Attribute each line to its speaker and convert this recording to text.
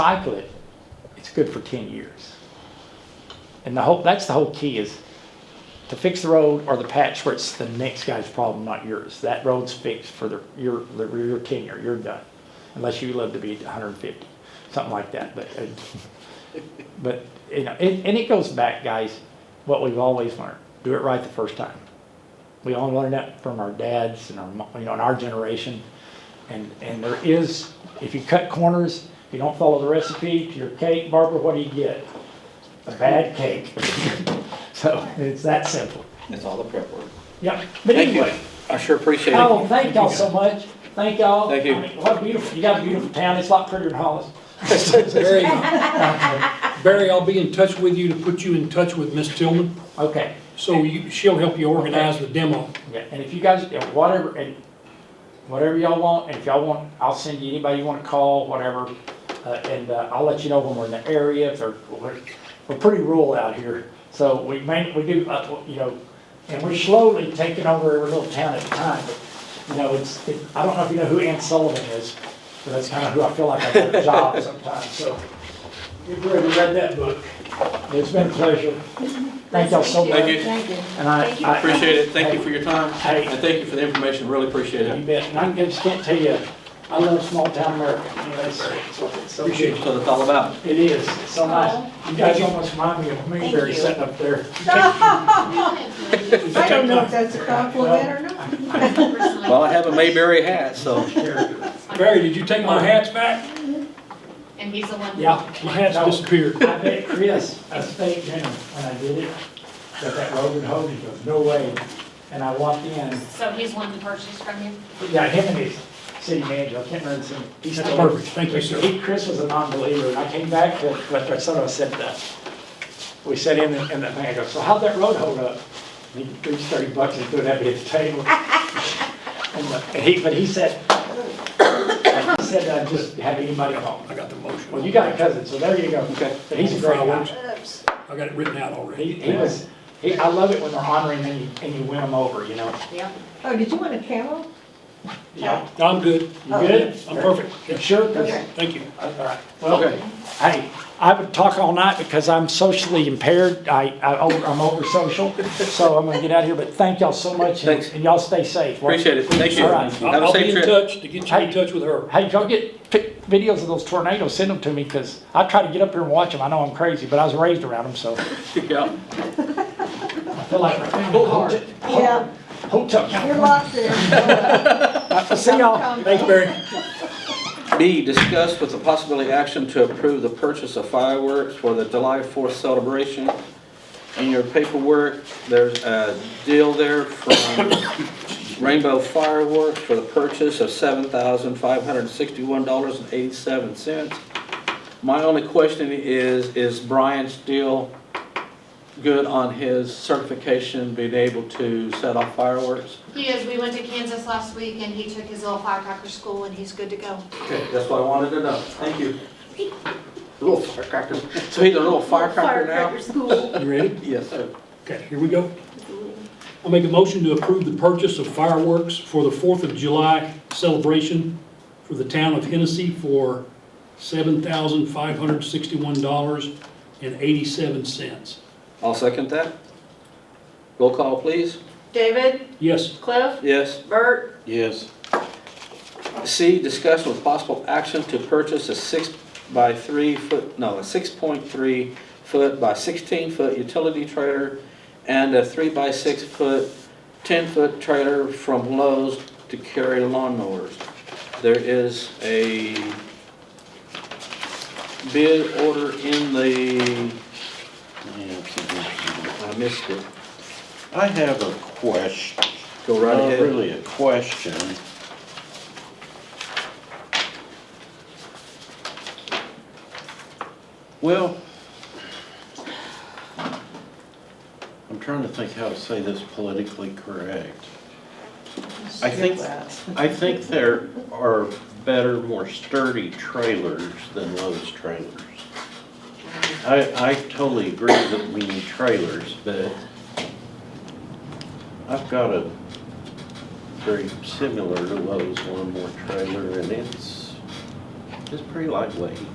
Speaker 1: recycle it, it's good for ten years. And the whole, that's the whole key is to fix the road or the patch where it's the next guy's problem, not yours. That road's fixed for the, your, the- your tenure, you're done. Unless you live to be hundred and fifty, something like that, but, uh, but, you know, and, and it goes back, guys, what we've always learned, do it right the first time. We all learned that from our dads and our, mo- you know, in our generation. And, and there is, if you cut corners, you don't follow the recipe to your cake, Barbara, what do you get? A bad cake. So it's that simple.
Speaker 2: That's all the prep work.
Speaker 1: Yep, but
Speaker 2: Thank you.
Speaker 1: anyway,
Speaker 2: I sure appreciate
Speaker 1: oh,
Speaker 2: it.
Speaker 1: thank y'all so much. Thank y'all.
Speaker 2: Thank you.
Speaker 1: I mean, What a beautiful, you got a beautiful town. It's a lot prettier than Hollis.
Speaker 3: Barry, Barry, I'll be in touch with you to put you in touch with Miss Tillman,
Speaker 1: Okay.
Speaker 3: so you, she'll help you organize the demo.
Speaker 1: Yeah, and if you guys, and whatever, and whatever y'all want, and if y'all want, I'll send you anybody you wanna call, whatever. Uh, and, uh, I'll let you know when we're in the area, if they're, we're, we're pretty rural out here. So we may, we do, uh, you know, and we're slowly taking over every little town at a time, but, you know, it's, it, I don't know if you know who Ann Sullivan is, but that's kinda who I feel like I got a job sometimes, so. You've already read that book. It's been a pleasure. Thank y'all so much.
Speaker 2: Thank you.
Speaker 4: Thank you.
Speaker 1: And I,
Speaker 4: Thank you.
Speaker 1: I.
Speaker 2: Appreciate it. Thank you for your time.
Speaker 1: Hey.
Speaker 2: And thank you for the information. Really appreciate
Speaker 1: You
Speaker 2: it.
Speaker 1: bet, and I just can't tell you, I love small town America, you know, it's, it's what it's so
Speaker 2: Appreciate
Speaker 1: good.
Speaker 2: what it's all about.
Speaker 1: It is, it's so
Speaker 4: Aw.
Speaker 1: nice. You guys almost remind me of Mayberry
Speaker 4: you.
Speaker 1: sitting up there.
Speaker 5: I don't know if that's a compliment or not.
Speaker 2: Well, I have a Mayberry hat, so
Speaker 3: Barry, did you take my hats back?
Speaker 4: And he's the one.
Speaker 1: Yeah.
Speaker 3: My hats
Speaker 1: No,
Speaker 3: disappeared.
Speaker 1: I bet Chris, I staked him when I did it, got that Rogan Hogan, he goes, no way. And I walked in,
Speaker 4: So he's one who purchased from you?
Speaker 1: yeah, him and his city manager, I can't remember his name. He's
Speaker 3: That's
Speaker 1: still-
Speaker 3: perfect, thank you, sir.
Speaker 1: He, Chris was a non-believer, and I came back, to but I sort of said that. We sat in, and and that man goes, so how'd that road hold up? And he threw thirty bucks and threw it at me at the table. And the- and he, but he said, he said, I just have anybody home.
Speaker 3: I got the motion.
Speaker 1: Well, you got a cousin, so there you go.
Speaker 2: Okay.
Speaker 1: But he's a great guy.
Speaker 3: I got it written out
Speaker 1: He,
Speaker 3: already.
Speaker 1: he was, he, I love it when they're honoring and you, and you win them over, you know?
Speaker 4: Yeah.
Speaker 5: Oh, did you want a camel?
Speaker 1: Yeah.
Speaker 3: I'm good.
Speaker 1: You good?
Speaker 3: I'm perfect.
Speaker 1: You sure? 'Cause-
Speaker 5: Okay.
Speaker 3: Thank you.
Speaker 1: All right. Well,
Speaker 2: Okay.
Speaker 1: Hey, I would talk all night because I'm socially impaired. I, I, over- I'm over social, so I'm gonna get out of here, but thank y'all so much. and-
Speaker 2: Thanks.
Speaker 1: And y'all stay safe.
Speaker 2: appreciate it. Thank you.
Speaker 1: All right.
Speaker 3: I'll-
Speaker 2: Have a
Speaker 3: I'll be
Speaker 2: safe
Speaker 3: in
Speaker 2: trip.
Speaker 3: touch to get you in touch with her.
Speaker 1: Hey, go get pic- videos of those tornadoes, send them to me, because I try to get up here and watch them. I know I'm crazy, but I was raised around them, so
Speaker 2: Yeah.
Speaker 1: I feel like.
Speaker 5: Yeah,
Speaker 1: Hotel.
Speaker 5: you're locked there.
Speaker 1: I'll See y'all.
Speaker 3: Thanks, Barry.
Speaker 2: B, discuss with the possibility action to approve the purchase of fireworks for the July 4th celebration. In your paperwork, there's a deal there from Rainbow Fireworks for the purchase of $7,561.87. My only question is, is Brian still good on his certification, being able to set off fireworks?
Speaker 4: He is, we went to Kansas last week and he took his little firecracker school and he's good to go.
Speaker 2: Okay, that's what I wanted to know. Thank you. Little firecracker. So he's a little firecracker now?
Speaker 5: school.
Speaker 3: You ready?
Speaker 2: Yes, sir.
Speaker 3: Okay, here we go. I'll make a motion to approve the purchase of fireworks for the Fourth of July celebration for the town of Hennessy for seven thousand five hundred sixty-one dollars and eighty-seven cents.
Speaker 2: I'll second that. Roll call, please.
Speaker 6: David,
Speaker 3: Yes,
Speaker 6: Cliff,
Speaker 2: Yes.
Speaker 6: Bert,
Speaker 2: Yes. C, discussion with possible action to purchase a six by three foot, no, a six point three foot by sixteen foot utility trailer and a three by six foot, ten foot trailer from Lowe's to carry lawnmowers. There is a bid order in the, I missed it.
Speaker 7: I have a question,
Speaker 2: Go right
Speaker 7: not
Speaker 2: ahead.
Speaker 7: really a question. Well, I'm trying to think how to say this politically correct. I think, I think there are better, more sturdy trailers than Lowe's trailers. I, I totally agree that we need trailers, but I've got a very similar to Lowe's lawnmower trailer, and it's, it's pretty lightweight.